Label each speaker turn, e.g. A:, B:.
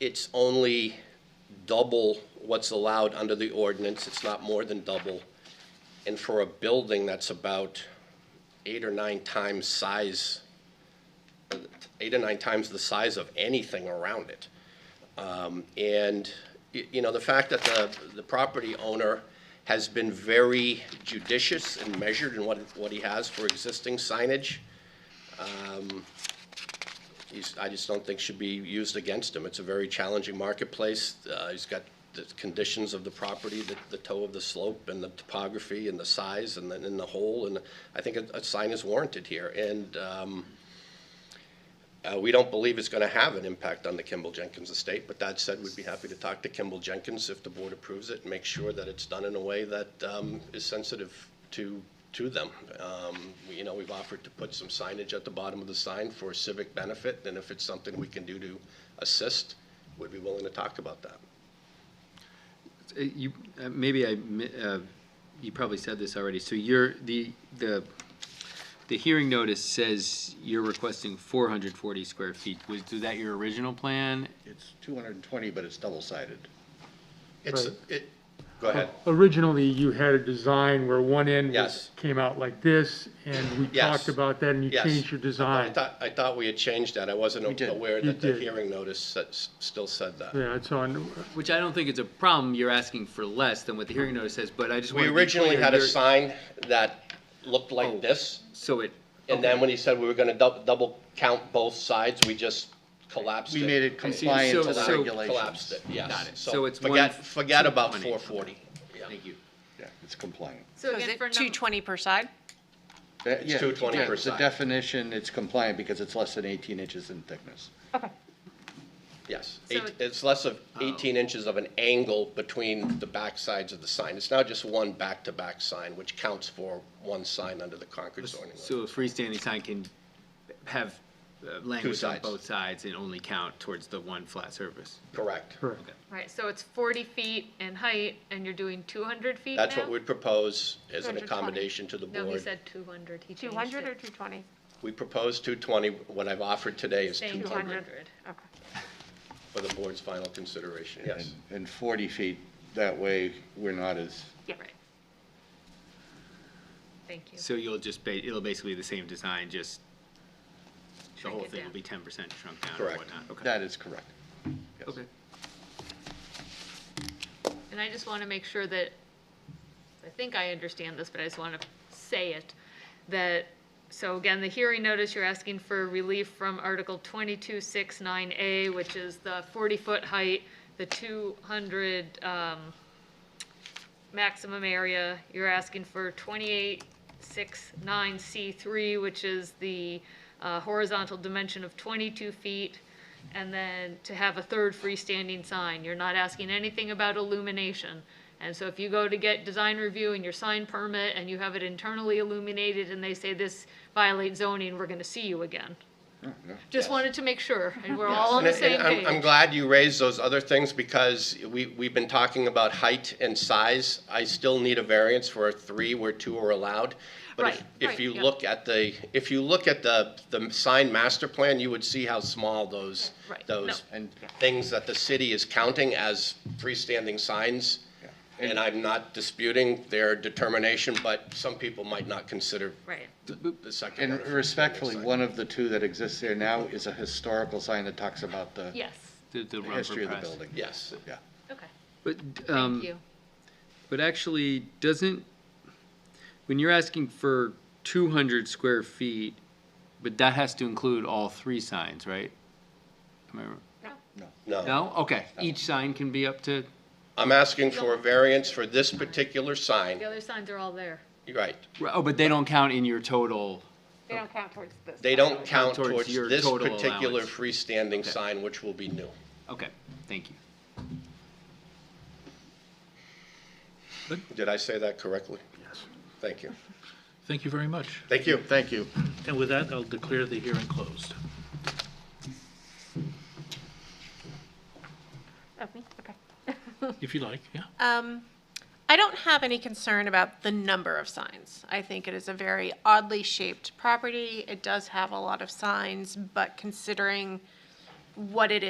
A: It's only double what's allowed under the ordinance, it's not more than double. And for a building that's about eight or nine times size, eight or nine times the size of anything around it. Um, And, y- you know, the fact that the, the property owner has been very judicious and measured in what, what he has for existing signage, he's, I just don't think should be used against him. It's a very challenging marketplace. Uh, he's got the conditions of the property, the, the toe of the slope and the topography and the size and then in the hole. And I think a, a sign is warranted here. And, um, uh, we don't believe it's gonna have an impact on the Kimball Jenkins estate, but that said, we'd be happy to talk to Kimball Jenkins if the board approves it and make sure that it's done in a way that, um, is sensitive to, to them. Um, we- you know, we've offered to put some signage at the bottom of the sign for civic benefit, and if it's something we can do to assist, we'd be willing to talk about that.
B: Uh, You, uh, maybe I, mi- uh, you probably said this already, so you're, the, the, the hearing notice says you're requesting four hundred forty square feet. Was, was that your original plan?
C: It's 220, but it's double-sided.
A: It's, it, go ahead.
D: Oh, Originally, you had a design where one end
A: Yes.
D: was, came out like this, and we
A: Yes.
D: talked about that, and you
A: Yes.
D: changed your
A: I
D: design.
A: thought, I thought we had changed that. I wasn't
C: did.
A: aware
D: You
A: that the
D: did.
A: hearing notice said- still said that.
D: Yeah, it's on,
B: Which I don't think it's a problem, you're asking for less than what the hearing notice says, but I just
A: We
B: wanna be
A: originally
B: clear,
A: had a
B: you're-
A: sign that looked
C: Oh.
A: like this,
B: So it,
A: and then when he said we were gonna dou- double count both sides, we just collapsed it.
C: We made it
B: see.
C: compliant
B: So-
C: to the
B: so-
C: regulations.
A: Collapsed it, yes.
B: Got it. So it's
A: Forget,
B: one-
A: forget about
B: 220.
A: four forty.
B: thank you.
C: Yeah, it's compliant.
E: So
F: So is
E: again,
F: it
E: for
F: two
E: number,
F: twenty per side?
C: That- Uh, yeah,
A: 220
C: yeah,
A: per
C: The
A: side.
C: definition, it's compliant because it's less than 18 inches in thickness.
A: Yes,
E: So
A: Eight-
E: it-
A: it's less of
B: Oh.
A: eighteen inches of an angle between the back sides of the sign. It's now just one back-to-back sign, which counts for one sign under the Concord zoning law.
B: So a freestanding sign can have uh, language on
A: sides.
B: both sides and only count towards the one flat surface?
A: Correct.
D: correct.
E: right, so it's 40 feet in height, and you're doing 200 feet
A: That's what
E: now?
A: we'd propose as an
F: 220.
A: accommodation to the board.
E: No, he said 200, he
F: Two
E: changed
F: hundred or
E: it.
F: two twenty?
A: We propose two twenty. What I've offered today is two
E: Saying
A: hundred
F: 200.
E: 200.
F: Okay.
A: for the board's final consideration, yes.
C: And- And 40 feet, that way, we're not as,
F: Yeah.
E: Right. Thank you.
B: So you'll just ba, it'll basically the same design, just the
E: Shrink
B: whole
E: it
B: thing will
E: down.
B: be ten percent shrunk down or
A: Correct.
B: whatnot, okay?
C: that is correct. Yes.
B: Okay.
E: And I just want to make sure that, I think I understand this, but I just want to say it, that, so again, the hearing notice, you're asking for relief from Article 2269A, which is the 40-foot height, the 200 um, maximum area. You're asking for 2869C3, which is the uh, horizontal dimension of 22 feet, and then to have a third freestanding sign. You're not asking anything about illumination. And so if you go to get design review and your sign permit and you have it internally illuminated and they say this violates zoning, we're gonna see you again. Just wanted to make sure, and we're all on the
A: And- and
E: same
A: I'm- I'm
E: page.
A: glad you raised those other things because we, we've been talking about height and size. I still need a variance for a three where two are allowed. But if,
E: Right,
A: if
E: right,
A: you
E: yeah.
A: look at the, if you look at the, the sign master plan, you would see how small those,
E: Right, no.
A: those
C: And
A: things that the city is counting as freestanding signs.
C: Yeah.
A: And I'm not disputing their determination, but some people might not consider
E: Right.
A: the the second.
C: and
A: order freestanding
C: respectfully,
A: sign.
C: one of the two that exists there now is a historical sign that talks about the
E: Yes,
B: The, the
C: the
B: rubber
C: history of the
B: press.
C: building.
A: Yes.
C: Yeah.
E: okay,
B: But,
E: thank
B: um,
E: you.
B: but actually, doesn't, when you're asking for two hundred square feet, but that has to include all three signs, right? Am I r-
A: No.
B: No? Okay, each sign can be up to,
A: I'm asking for a variance for this particular sign.
E: The other signs are all there.
A: You're Right.
B: oh, but they don't count in your total,
F: They don't count towards this.
A: They don't count
B: Towards
A: towards
B: your
A: this
B: total
A: particular
B: allowance.
A: freestanding
B: Okay.
A: sign, which will be new.
B: okay, thank you.
A: Did I say that correctly? Yes. Thank you.
G: Thank you very much.
A: Thank you.
C: Thank you.
G: And with that, I'll declare the hearing closed.
F: Of me, okay.
G: If you like, yeah.
F: I don't have any concern about the number of signs. I think it is a very oddly shaped property. It does have a lot of signs, but considering what it